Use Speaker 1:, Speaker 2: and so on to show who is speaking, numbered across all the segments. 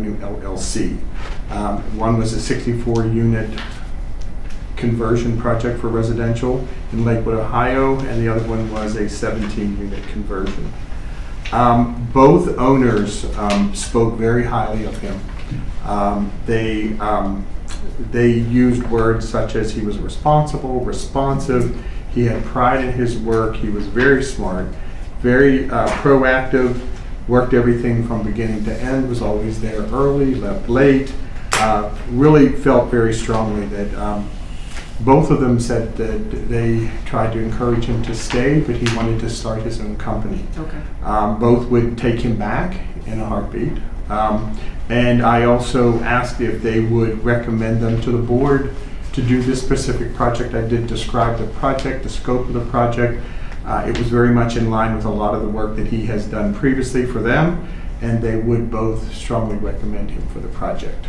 Speaker 1: Avenue LLC. Um, One was a 64-unit conversion project for residential in Lakewood, Ohio, and the other one was a 17-unit conversion. Um, Both owners um, spoke very highly of him. Um, They, um, they used words such as he was responsible, responsive, he had pride in his work, he was very smart, very uh, proactive, worked everything from beginning to end, was always there early, left late, uh, really felt very strongly that um, both of them said that they tried to encourage him to stay, but he wanted to start his own company.
Speaker 2: Okay.
Speaker 1: Um, both would take him back in a heartbeat. Um, and I also asked if they would recommend them to the board to do this specific project. I did describe the project, the scope of the project. Uh, it was very much in line with a lot of the work that he has done previously for them, and they would both strongly recommend him for the project.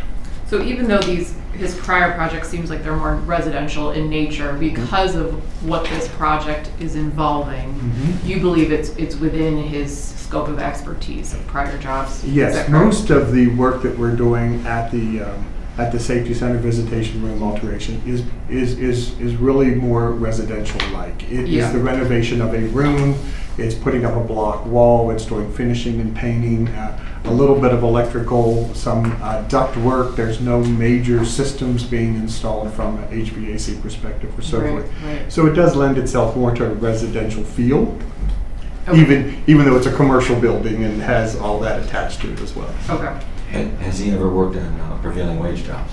Speaker 2: So even though these, his prior project seems like they're more residential in nature, because of what this project is
Speaker 1: Mm.
Speaker 2: involving, you believe it's, it's within his scope of expertise of prior jobs? Is that
Speaker 1: Yes,
Speaker 2: correct?
Speaker 1: most of the work that we're doing at the, um, at the safety center visitation room alteration is, is, is, is really more residential-like. It
Speaker 2: Yeah.
Speaker 1: is the renovation of a room, it's putting up a block wall, it's doing finishing and painting, uh, a little bit of electrical, some uh, duct work. There's no major systems being installed from an HVAC perspective or so
Speaker 2: Right,
Speaker 1: forth.
Speaker 2: right.
Speaker 1: So it does lend itself more to a residential feel,
Speaker 2: Okay.
Speaker 1: even, even though it's a commercial building and has all that attached to it as well.
Speaker 2: Okay,
Speaker 3: Ha- Has he ever worked on uh, prevailing wage jobs?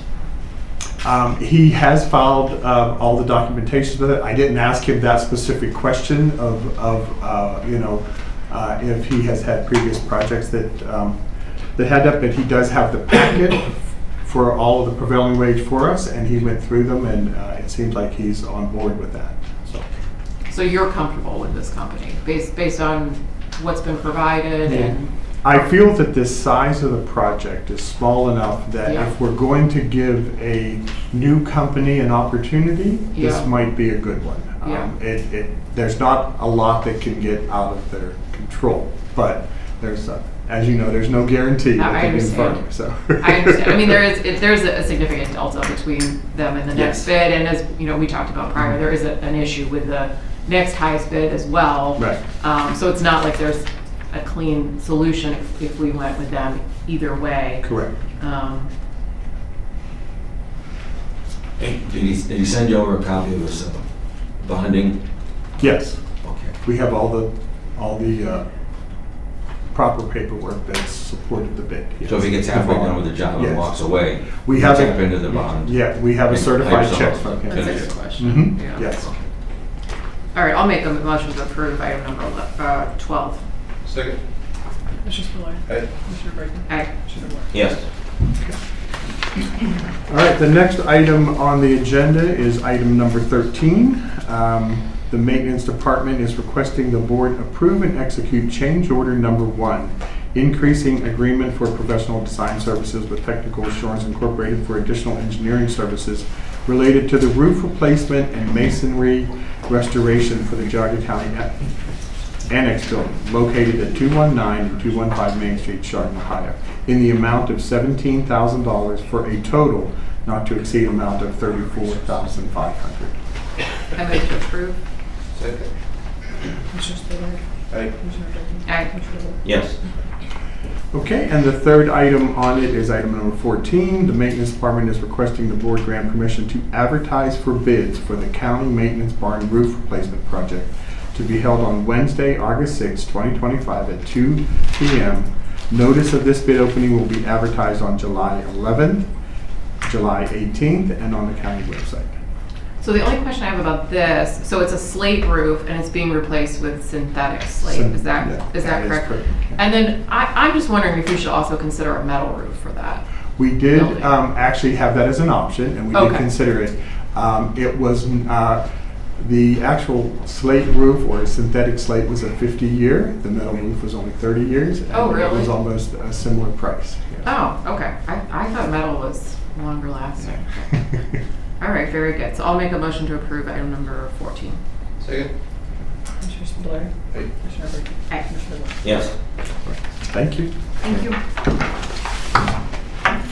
Speaker 1: Um, he has filed uh, all the documentation with it. I didn't ask him that specific question of, of uh, you know, uh, if he has had previous projects that, um, that had that, but he does have the packet for all of the prevailing wage for us, and he went through them, and uh, it seems like he's on board with that. So,
Speaker 2: so you're comfortable with this company, based, based on what's been provided
Speaker 1: Yeah.
Speaker 2: and,
Speaker 1: I feel that the size of the project is small enough that
Speaker 2: Yeah.
Speaker 1: if we're going to give a new company an opportunity, this
Speaker 2: Yeah.
Speaker 1: might be a good one. Um,
Speaker 2: Yeah.
Speaker 1: It, it, there's not a lot that can get out of their control, but there's, uh, as you know, there's no guarantee.
Speaker 2: I-
Speaker 1: that
Speaker 2: I
Speaker 1: they can
Speaker 2: understand.
Speaker 1: fund, So.
Speaker 2: I understand. I mean, there is, it- there's a significant delta between them and
Speaker 1: Yes.
Speaker 2: the
Speaker 1: Mm-hmm.
Speaker 2: next bid, and as, you know, we talked about prior, there is a- an issue with the next highest bid as well.
Speaker 1: Right.
Speaker 2: Um, So it's not like there's a clean solution if- if we went with them either way.
Speaker 1: Correct.
Speaker 2: Um,
Speaker 3: Did he, did he send you over a copy of his uh, bonding?
Speaker 1: Yes,
Speaker 3: Okay.
Speaker 1: we have all the, all the uh, proper paperwork that supported the bid.
Speaker 3: So if he gets
Speaker 1: yes.
Speaker 3: halfway done with the job and
Speaker 1: Yes.
Speaker 3: walks away,
Speaker 1: We
Speaker 3: you
Speaker 1: have
Speaker 3: tap
Speaker 1: a-
Speaker 3: into the bond?
Speaker 1: Yeah, we have a
Speaker 3: And
Speaker 1: certified
Speaker 3: types
Speaker 1: check
Speaker 3: on-
Speaker 1: from him.
Speaker 2: That's a good
Speaker 3: Yes.
Speaker 2: question.
Speaker 1: Mhm,
Speaker 2: Yeah.
Speaker 1: Yes.
Speaker 2: All right, I'll make a motion to approve item number ele- uh, 12.
Speaker 4: Second.
Speaker 5: Mr. Spiller.
Speaker 4: Aye.
Speaker 5: Mr. Brady.
Speaker 2: Aye.
Speaker 5: Mr. Moore.
Speaker 3: Yes.
Speaker 1: All right, the next item on the agenda is item number 13. Um, The Maintenance Department is requesting the board approve and execute change order number one, increasing agreement for professional design services with Technical Assurance Incorporated for additional engineering services related to the roof replacement and masonry restoration for the Geauga County Annex Building located at 219 and 215 Main Street, Chardon, Ohio, in the amount of $17,000 for a total not to exceed amount of $34,500.
Speaker 2: I move to approve.
Speaker 4: Second.
Speaker 5: Mr. Spiller.
Speaker 4: Aye.
Speaker 5: Mr. Brady.
Speaker 2: Aye.
Speaker 5: Mr. Moore.
Speaker 3: Yes.
Speaker 1: Okay, and the third item on it is item number 14. The Maintenance Department is requesting the board grant permission to advertise for bids for the county maintenance barn roof replacement project to be held on Wednesday, August 6, 2025 at 2 p.m. Notice of this bid opening will be advertised on July 11th, July 18th, and on the county website.
Speaker 2: So the only question I have about this, so it's a slate roof and it's being replaced with synthetic slate,
Speaker 1: Syn-
Speaker 2: is
Speaker 1: yeah,
Speaker 2: that, is that correct?
Speaker 1: yeah.
Speaker 2: And then I, I'm just wondering if we should also consider a metal roof for that.
Speaker 1: We did
Speaker 2: building.
Speaker 1: um, actually have that as an option, and we did
Speaker 2: Okay.
Speaker 1: consider it. Um, It was, uh, the actual slate roof or synthetic slate was a 50-year, the metal roof was only 30 years. and It
Speaker 2: Oh,
Speaker 1: was
Speaker 2: really?
Speaker 1: almost a similar price. yeah.
Speaker 2: Oh, okay. I, I thought metal was longer lasting. All right, very good. So I'll make a motion to approve item number 14.
Speaker 4: Second.
Speaker 5: Mr. Spiller.
Speaker 4: Aye.
Speaker 5: Mr. Brady.
Speaker 2: Aye.
Speaker 5: Mr. Moore.
Speaker 3: Yes.
Speaker 1: Thank you.
Speaker 2: Thank you.